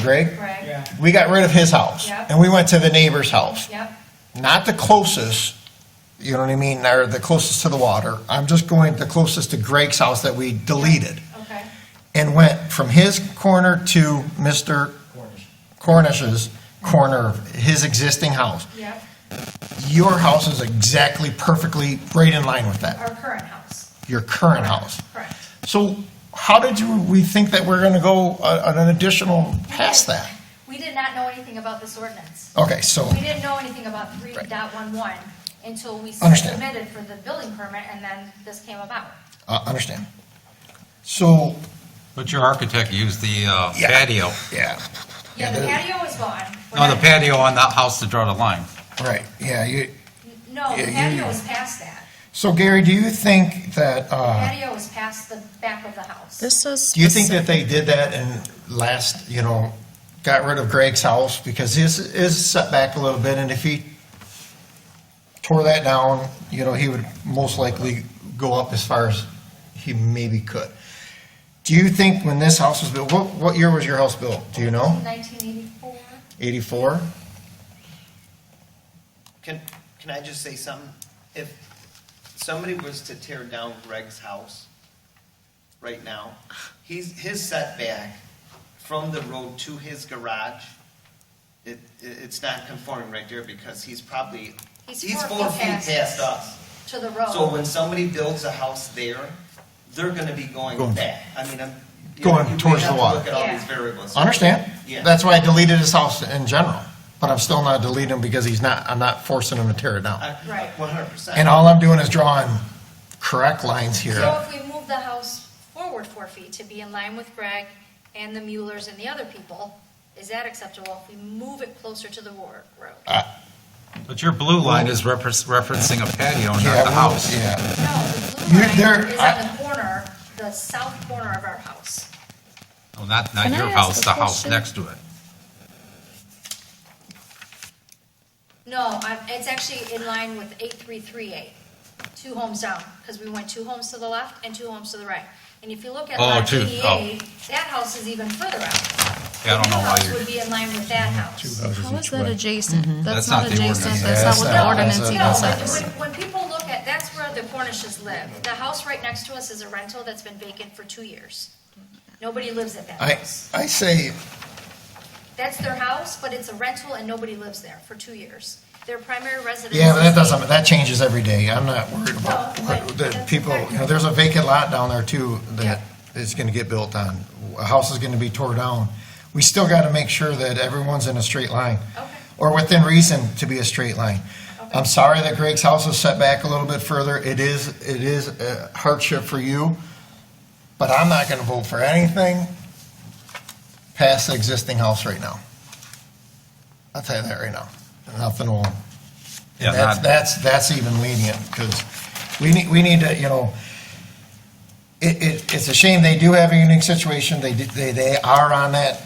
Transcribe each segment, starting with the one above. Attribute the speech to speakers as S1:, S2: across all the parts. S1: Greg?
S2: Greg?
S3: Yeah.
S1: We got rid of his house.
S2: Yep.
S1: And we went to the neighbor's house.
S2: Yep,
S1: Not the closest, you know what I mean, or the closest to the water. I'm just going the closest to Greg's house that we deleted.
S2: okay,
S1: And went from his corner to Mr. Cornish's corner of his existing house.
S2: yep,
S1: Your house is exactly perfectly right in line with that,
S2: our current house,
S1: your current house.
S2: correct.
S1: So how did you, we think that we're going to go a- an additional past that?
S2: We did not know anything about this ordinance.
S1: Okay, so,
S2: We didn't know anything about three
S1: Right.
S2: dot one one until we
S1: Understand.
S2: submitted for the building permit and then this came about.
S1: uh, understand. So,
S4: But your architect used the uh,
S1: Yeah.
S4: patio,
S1: yeah,
S2: Yeah, the patio is gone. We're
S4: no, the
S2: not-
S4: patio on that house to draw the line.
S1: right, yeah, you,
S2: No, the
S1: Yeah, you-
S2: patio is past that.
S1: so Gary, do you think that, uh,
S2: Patio is past the back of the house.
S5: This is.
S1: do you think that they did that and last, you know, got rid of Greg's house? Because his is set back a little bit, and if he tore that down, you know, he would most likely go up as far as he maybe could. Do you think when this house was built, what, what year was your house built? Do you know?
S2: Nineteen eighty-four?
S1: Eighty-four?
S6: Can, can I just say something? If somebody was to tear down Greg's house right now, he's, his setback from the road to his garage, it, it- it's not conforming right there because he's probably,
S2: He's
S6: he's
S2: four
S6: four
S2: feet
S6: feet
S2: past us.
S6: past us.
S2: To the
S6: So
S2: road.
S6: when somebody builds a house there, they're gonna be going
S1: Going-
S6: back. I mean, I'm. you
S1: Going
S6: know, you may
S1: towards the
S6: have to
S1: water.
S6: Look at all
S2: Yeah.
S6: these variables.
S1: Understand?
S6: Yeah.
S1: That's why I deleted his house in general, but I'm still not deleting him because he's not, I'm not forcing him to tear it down.
S2: Right.
S6: One hundred percent.
S1: And all I'm doing is drawing correct lines
S2: So
S1: here.
S2: if we move the house forward four feet to be in line with Greg and the Muellers and the other people, is that acceptable if we move it closer to the wor- road?
S4: But your blue line is repre- referencing a patio,
S1: Yeah,
S4: not the
S1: we-
S4: house.
S1: Yeah,
S2: No, the
S1: You-
S2: blue line
S1: there-
S2: is
S1: I-
S2: on the corner, the south corner of our house.
S4: Well, Not, not
S5: Can I
S4: your
S5: ask
S4: house,
S5: a
S4: the house
S5: question?
S4: next to it.
S2: No, I'm- it's actually in line with 8338, two homes down, because we went two homes to the left and two homes to the right. And if you look at
S4: Oh,
S2: lot
S4: two,
S2: 88, that house is even further out.
S4: Yeah, I don't know why
S2: The new house would
S4: you're,
S2: be in line with that house.
S5: How is that adjacent?
S4: That's
S5: That's
S4: not
S5: not
S4: the ordinance.
S5: adjacent, that's not what
S1: That's
S5: the
S1: not-
S5: ordinance
S1: that's
S5: even
S2: No, when,
S5: says.
S2: when- when people look at, that's where the Cornishes live. The house right next to us is a rental that's been vacant for two years. Nobody lives at that
S1: I,
S2: house.
S1: I say,
S2: That's their house, but it's a rental and nobody lives there for two years. Their primary residence.
S1: yeah, but that
S2: is-
S1: doesn't, that changes every day. I'm not worried about,
S2: No,
S1: what-
S2: but
S1: that
S2: that's
S1: people,
S2: correct.
S1: you know, there's a vacant lot down there too that
S2: Yeah.
S1: is gonna get built on. A house is gonna be tore down. We still gotta make sure that everyone's in a straight line.
S2: Okay.
S1: or within reason to be a straight line. I'm sorry that Greg's house was set back a little bit further. It is, it is a hardship for you, but I'm not gonna vote for anything past the existing house right now. I'll tell you that right now. Nothing will,
S4: Yeah,
S1: and that's,
S4: not-
S1: that's, that's even lenient, because we need, we need to, you know, it, it, it's a shame they do have a unique situation. They, did- they, they are on that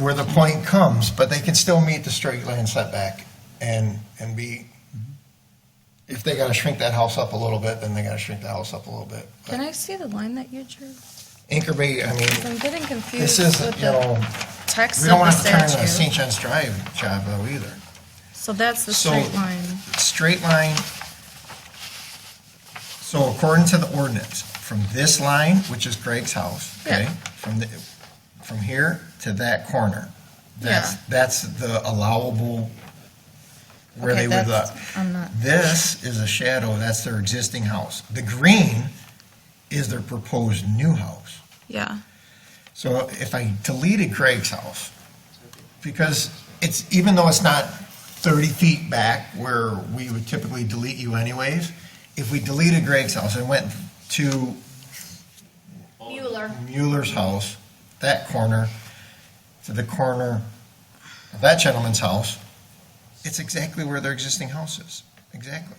S1: where the point comes, but they can still meet the straight line setback and, and be, if they gotta shrink that house up a little bit, then they gotta shrink the house up a little bit.
S5: Can I see the line that you drew?
S1: Anchor Bay, I mean,
S5: I'm getting confused
S1: this
S5: with
S1: is, you know,
S5: the text
S1: we don't
S5: of the
S1: wanna turn a St.
S5: statute.
S1: John's Drive job though either.
S5: So that's the
S1: So-
S5: straight line.
S1: Straight line, so according to the ordinance, from this line, which is Greg's house, okay?
S5: Yeah.
S1: From the, from here to that corner, that's,
S5: Yeah.
S1: that's the allowable where
S5: Okay,
S1: they would
S5: that's-
S1: look.
S5: I'm not,
S1: This is a shadow, that's their existing house. The green is their proposed new house.
S5: yeah,
S1: So if I deleted Craig's house, because it's, even though it's not 30 feet back where we would typically delete you anyways, if we deleted Greg's house and went to
S2: Mueller.
S1: Mueller's house, that corner, to the corner of that gentleman's house, it's exactly where their existing house is, exactly.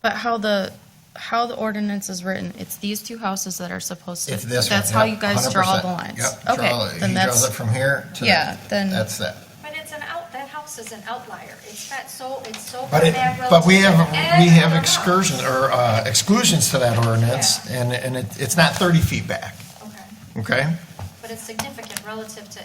S5: but how the, how the ordinance is written, it's these two houses that are supposed to.
S1: It's this one.
S5: That's how
S1: yep,
S5: you guys draw
S1: 100%.
S5: the lines.
S1: Yep. draw
S5: Okay,
S1: it.
S5: then
S1: He draws it
S5: that's,
S1: from here to.
S5: yeah, then-
S1: That's that.
S2: But it's an out, that house is an outlier. It's got so, it's so far
S1: But it,
S2: back relative.
S1: but we have,
S2: to every
S1: we have
S2: other house.
S1: excursion, or uh, exclusions to that ordinance, and, and it, it's not thirty feet back,
S2: Okay.
S1: okay?
S2: But it's significant relative to